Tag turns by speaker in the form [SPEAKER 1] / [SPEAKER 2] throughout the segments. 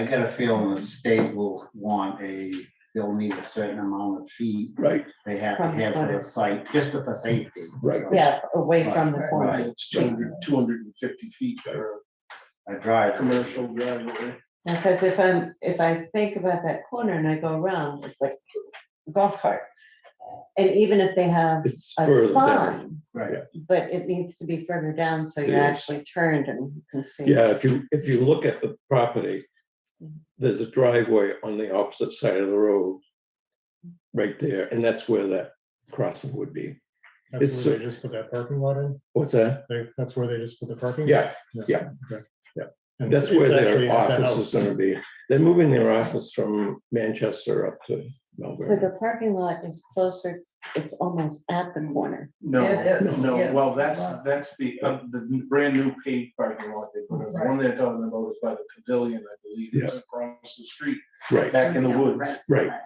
[SPEAKER 1] I got a feeling the state will want a, they'll need a certain amount of feet
[SPEAKER 2] right,
[SPEAKER 1] they have to have for their site, just for the safety.
[SPEAKER 2] right.
[SPEAKER 3] Yeah, away from the
[SPEAKER 1] Right,
[SPEAKER 3] corner.
[SPEAKER 2] It's two hundred, two hundred and fifty feet for
[SPEAKER 1] I
[SPEAKER 2] a
[SPEAKER 1] drive.
[SPEAKER 2] commercial driveway.
[SPEAKER 3] Because if I'm, if I think about that corner and I go around, it's like golf cart. And even if they have
[SPEAKER 4] It's
[SPEAKER 3] a
[SPEAKER 4] further down.
[SPEAKER 3] sign,
[SPEAKER 1] Right,
[SPEAKER 3] but it needs to be further down so
[SPEAKER 4] It
[SPEAKER 3] you're
[SPEAKER 4] is.
[SPEAKER 3] actually turned and you can see.
[SPEAKER 4] Yeah, if you, if you look at the property,
[SPEAKER 3] Mhm.
[SPEAKER 4] there's a driveway on the opposite side of the road. Right there, and that's where that crossing would be. It's
[SPEAKER 5] That's where they just put that parking lot in,
[SPEAKER 4] What's that?
[SPEAKER 5] They- that's where they just put the parking.
[SPEAKER 4] Yeah,
[SPEAKER 5] And
[SPEAKER 4] that's
[SPEAKER 5] it's
[SPEAKER 4] where
[SPEAKER 5] actually
[SPEAKER 4] their
[SPEAKER 5] at the
[SPEAKER 4] office is
[SPEAKER 5] house.
[SPEAKER 4] gonna be. They're moving their office from Manchester up to
[SPEAKER 3] But
[SPEAKER 4] Melbourne.
[SPEAKER 3] the parking lot is closer, it's almost at the corner.
[SPEAKER 2] No,
[SPEAKER 6] It is,
[SPEAKER 2] no,
[SPEAKER 6] yeah.
[SPEAKER 2] well, that's, that's the, uh, the brand new paved parking lot they put in. The one they're talking about is by the pavilion, I believe, it's across the street,
[SPEAKER 4] Right,
[SPEAKER 2] back in the
[SPEAKER 6] Yeah,
[SPEAKER 2] woods.
[SPEAKER 6] right,
[SPEAKER 4] right.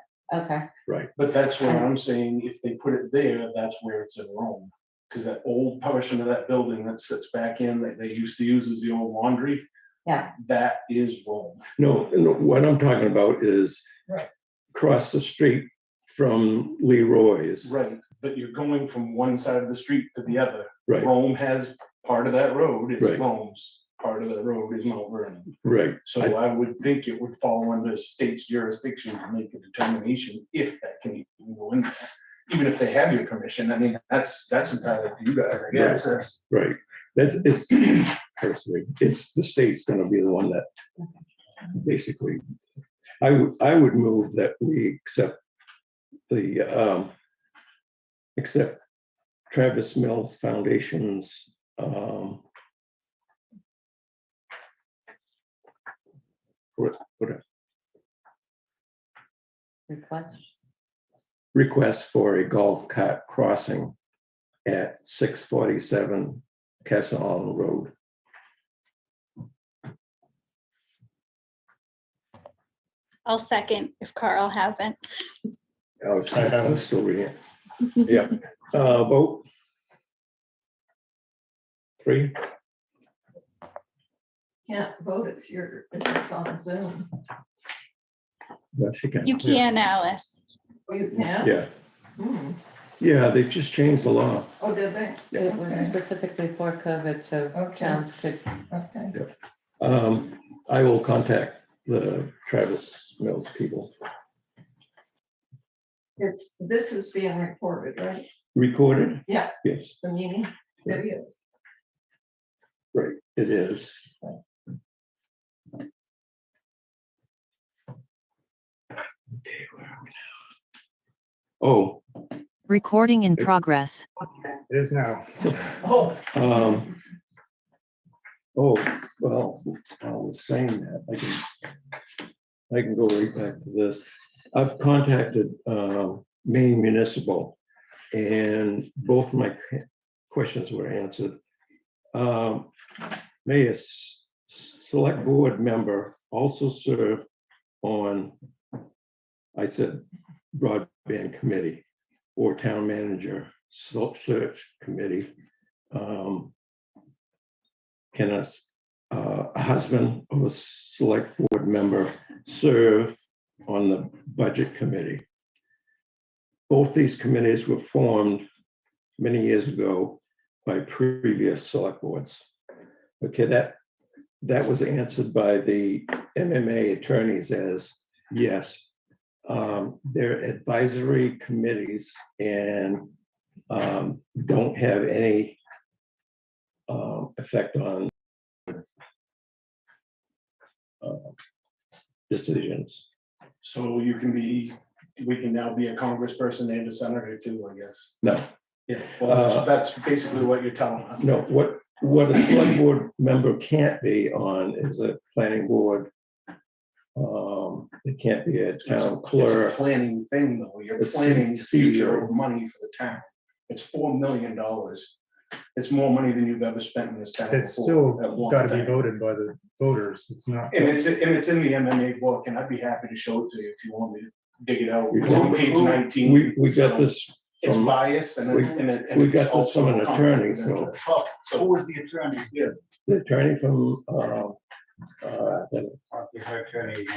[SPEAKER 3] Okay,
[SPEAKER 2] But that's what I'm saying, if they put it there, that's where it's in Rome. Because that old portion of that building that sits back in, that they used to use as the old laundry.
[SPEAKER 3] Yeah.
[SPEAKER 2] That is Rome.
[SPEAKER 4] no, no, what I'm talking about is.
[SPEAKER 6] Right.
[SPEAKER 4] Across the street from Leroy's,
[SPEAKER 2] Right, but you're going from one side of the street to the other.
[SPEAKER 4] right,
[SPEAKER 2] Rome has, part of that road
[SPEAKER 4] Right.
[SPEAKER 2] is Rome's, part of the road is Mount Vernon.
[SPEAKER 4] right,
[SPEAKER 2] So
[SPEAKER 4] I-
[SPEAKER 2] I would think it would fall under state's jurisdiction to make a determination if that can even go in there. Even if they have your permission, I mean, that's, that's entirely up to you guys, I guess, that's.
[SPEAKER 4] right. That's, it's, personally, it's, the state's gonna be the one that basically. I would, I would move that we accept the, um, accept Travis Mills Foundation's, um, what, what,
[SPEAKER 3] request.
[SPEAKER 4] request for a golf cart crossing at six forty-seven Castle Island Road.
[SPEAKER 7] I'll second if Carl hasn't.
[SPEAKER 4] I was,
[SPEAKER 5] I have it.
[SPEAKER 4] I was still reading it. Yeah, uh, vote. Three,
[SPEAKER 6] Can't vote if you're, if it's on Zoom.
[SPEAKER 4] yes, you can.
[SPEAKER 7] You can, Alice.
[SPEAKER 6] Oh, you can?
[SPEAKER 4] Yeah,
[SPEAKER 6] Hmm.
[SPEAKER 4] yeah, they just changed the law.
[SPEAKER 6] Oh, did they?
[SPEAKER 3] It was
[SPEAKER 6] Okay.
[SPEAKER 3] specifically for COVID, so
[SPEAKER 6] Okay.
[SPEAKER 3] towns could,
[SPEAKER 6] Okay.
[SPEAKER 4] Um, I will contact the Travis Mills people.
[SPEAKER 6] It's, this is being recorded, right?
[SPEAKER 4] Recorded?
[SPEAKER 6] Yeah.
[SPEAKER 4] Yes,
[SPEAKER 6] The meeting video.
[SPEAKER 4] it is. Okay, where are we now? Oh,
[SPEAKER 8] Recording in
[SPEAKER 4] Okay.
[SPEAKER 8] progress.
[SPEAKER 5] It is now.
[SPEAKER 2] Oh.
[SPEAKER 4] Um. Oh, well, I was saying that, I can. I can go right back to this. I've contacted uh Maine Municipal. And both my questions were answered. Um, may a s- select board member also serve on. I said broadband committee or town manager so- search committee um, Can a, s- uh, a husband of a select board member serve on the budget committee? Both these committees were formed many years ago by previous select boards. Okay, that, that was answered by the MMA attorneys as, yes. Um, They're advisory committees and um, don't have any um, effect on uh, decisions.
[SPEAKER 2] So you can be, we can now be a congressperson and a senator too, I guess.
[SPEAKER 4] No,
[SPEAKER 2] Yeah, well,
[SPEAKER 4] Uh,
[SPEAKER 2] that's that's basically what you're telling us.
[SPEAKER 4] no, what, what a select board member can't be on is a planning board. Um, It can't be a
[SPEAKER 2] It's a-
[SPEAKER 4] town
[SPEAKER 2] It's a
[SPEAKER 4] clerk.
[SPEAKER 2] planning thing, though. You're
[SPEAKER 4] It's E
[SPEAKER 2] planning the
[SPEAKER 4] CEO.
[SPEAKER 2] future of money for the town. It's four million dollars. It's more money than you've ever spent in this town before.
[SPEAKER 5] It's still
[SPEAKER 2] at one
[SPEAKER 5] gotta be
[SPEAKER 2] time.
[SPEAKER 5] voted by the voters, it's not.
[SPEAKER 2] And it's, and it's in the MMA book, and I'd be happy to show it to you if you want me to dig it out.
[SPEAKER 4] We-
[SPEAKER 2] It's on page nineteen.
[SPEAKER 4] We, we got
[SPEAKER 2] So
[SPEAKER 4] this
[SPEAKER 2] It's
[SPEAKER 4] from,
[SPEAKER 2] biased and.
[SPEAKER 4] we-
[SPEAKER 2] it- and it- and
[SPEAKER 4] we
[SPEAKER 2] it's
[SPEAKER 4] got this
[SPEAKER 2] also
[SPEAKER 4] from an attorney,
[SPEAKER 2] conflict of
[SPEAKER 4] so-
[SPEAKER 2] interest. So
[SPEAKER 1] who was the attorney?
[SPEAKER 4] the attorney from uh,
[SPEAKER 9] uh, then
[SPEAKER 5] Talk to her attorney